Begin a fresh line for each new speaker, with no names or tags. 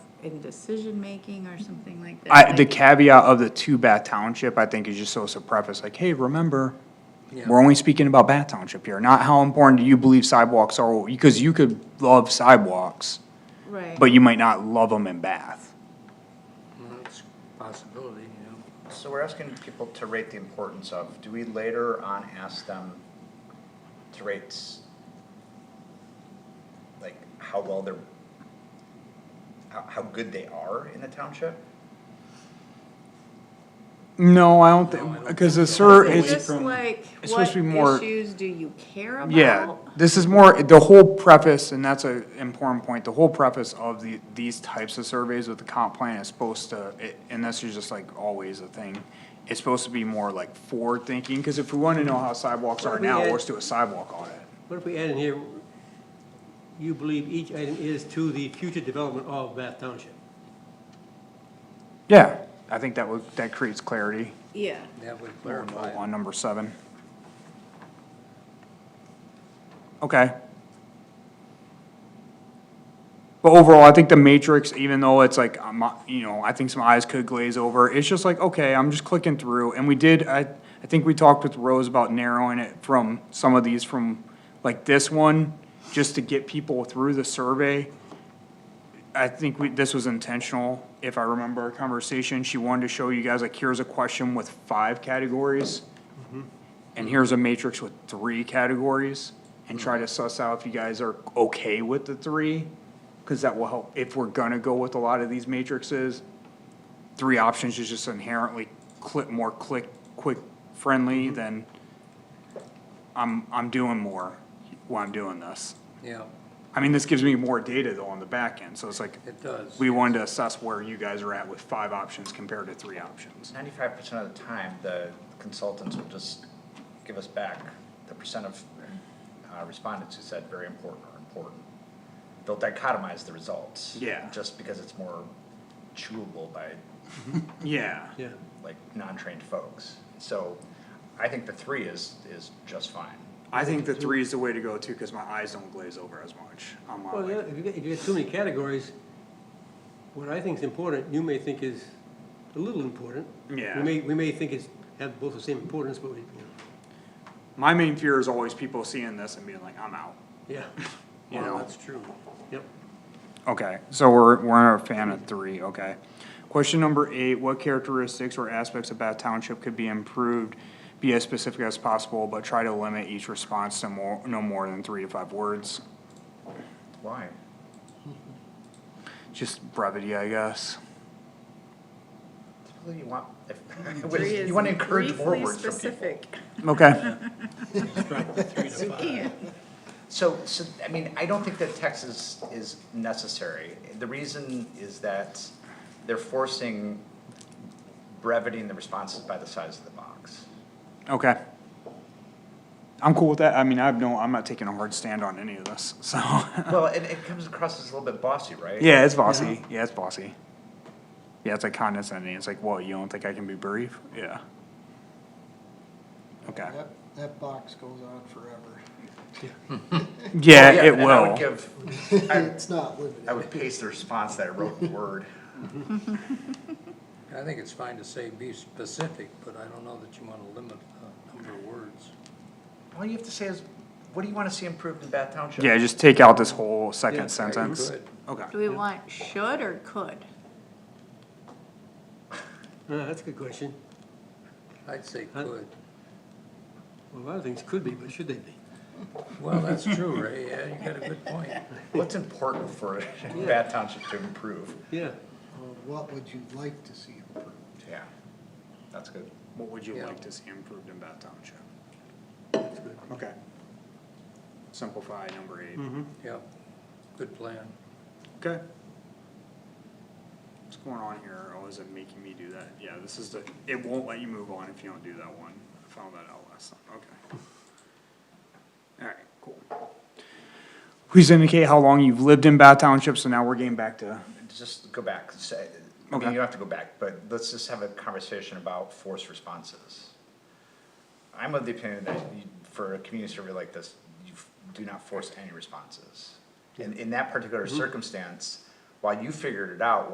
in decision-making or something like that?
I, the
Like,
caveat of the two Bath Township, I think, is just so it's a preface, like, hey, remember, we're only speaking about Bath Township here, not how important do you believe sidewalks are, because you could love sidewalks,
Right.
but you might not love them in Bath.
Well, That's a possibility, you know.
So we're asking people to rate the importance of, do we later on ask them to rate s- like how well they're, how, how good they are in the township?
No, I don't think, because the sur,
Is
it's,
this like,
it's supposed
what
to be more-
issues do you care about?
yeah, this is more, the whole preface, and that's an important point, the whole preface of the, these types of surveys with the comp plan is supposed to, it- and this is just like always a thing, it's supposed to be more like forward-thinking, because if we want to know how sidewalks are
Well, we
now,
had-
let's do a sidewalk audit.
What if we add in here, you believe each item is to the future development of Bath Township?
Yeah, I think that would, that creates clarity
Yeah,
That would
on number seven. Okay. But overall, I think the matrix, even though it's like, um, you know, I think some eyes could glaze over, it's just like, okay, I'm just clicking through, and we did, I, I think we talked with Rose about narrowing it from some of these from, like this one, just to get people through the survey. I think we, this was intentional, if I remember our conversation, she wanted to show you guys, like, here's a question with five categories. And here's a matrix with three categories, and try to suss out if you guys are okay with the three. Cause that will help, if we're gonna go with a lot of these matrices, three options is just inherently click, more click, quick, friendly than I'm, I'm doing more while I'm doing this.
Yeah,
I mean, this gives me more data though on the back end, so it's like,
it does.
we wanted to assess where you guys are at with five options compared to three options.
Ninety-five percent of the time, the consultants will just give us back the percent of uh, respondents who said very important or important. They'll dichotomize the results.
Yeah.
Just because it's more chewable by
Yeah.
Yeah,
like non-trained folks. So I think the three is, is just fine.
I think the three is the way to go too, cause my eyes don't glaze over as much. I'm not
well, yeah,
like,
if you got, if you got too many categories, what I think is important, you may think is a little important.
Yeah.
We may, we may think it's, have both the same importance, but we, you know,
my main fear is always people seeing this and being like, I'm out.
yeah.
You
Well,
know.
That's true, yep.
Okay, so we're, we're a fan of three, okay. Question number eight, what characteristics or aspects of Bath Township could be improved? Be as specific as possible, but try to limit each response to more, no more than three to five words.
Why?
Just brevity, I guess.
Typically you want,
three
if,
is
you want to encourage more
briefly
words from people.
specific.
Okay,
You can't.
So, so, I mean, I don't think that text is, is necessary. The reason is that they're forcing breveting the responses by the size of the box.
okay. I'm cool with that. I mean, I've no, I'm not taking a hard stand on any of this, so.
Well, it, it comes across as a little bit bossy, right?
Yeah, it's bossy. Yeah, it's bossy. Yeah, it's like condescending. It's like, well, you don't think I can be brief? Yeah. Okay.
That, that box goes on forever.
Yeah, it
And I would
will.
give,
It's not limited.
I would paste the response that I wrote in Word.
I think it's fine to say be specific, but I don't know that you want to limit the number of words.
All you have to say is, what do you want to see improved in Bath Township?
Yeah, just take out this whole
Yeah,
second
you
sentence.
could.
Okay.
Do we want should or could?
Uh, that's a good question.
I'd say
Huh?
could.
Well, a lot of things could be, but should they be?
Well, that's true, Ray, yeah, you got a good point.
What's important for Bath Township to improve?
Yeah,
Or What would you like to see improved?
Yeah, that's good.
What would you
Yeah.
like to see improved in Bath Township?
that's good.
Okay. Simplify number eight.
Mm-hmm.
Yep, good plan.
Okay. What's going on here? Oh, is it making me do that? Yeah, this is the, it won't let you move on if you don't do that one. I found that out last time, okay. Alright, cool. Please indicate how long you've lived in Bath Township, so now we're getting back to,
Just go back, say, I mean,
Okay.
you don't have to go back, but let's just have a conversation about forced responses. I'm of the opinion that you, for a community survey like this, you f- do not Mm-hmm. force any responses. In, in that particular circumstance, while you figured it out,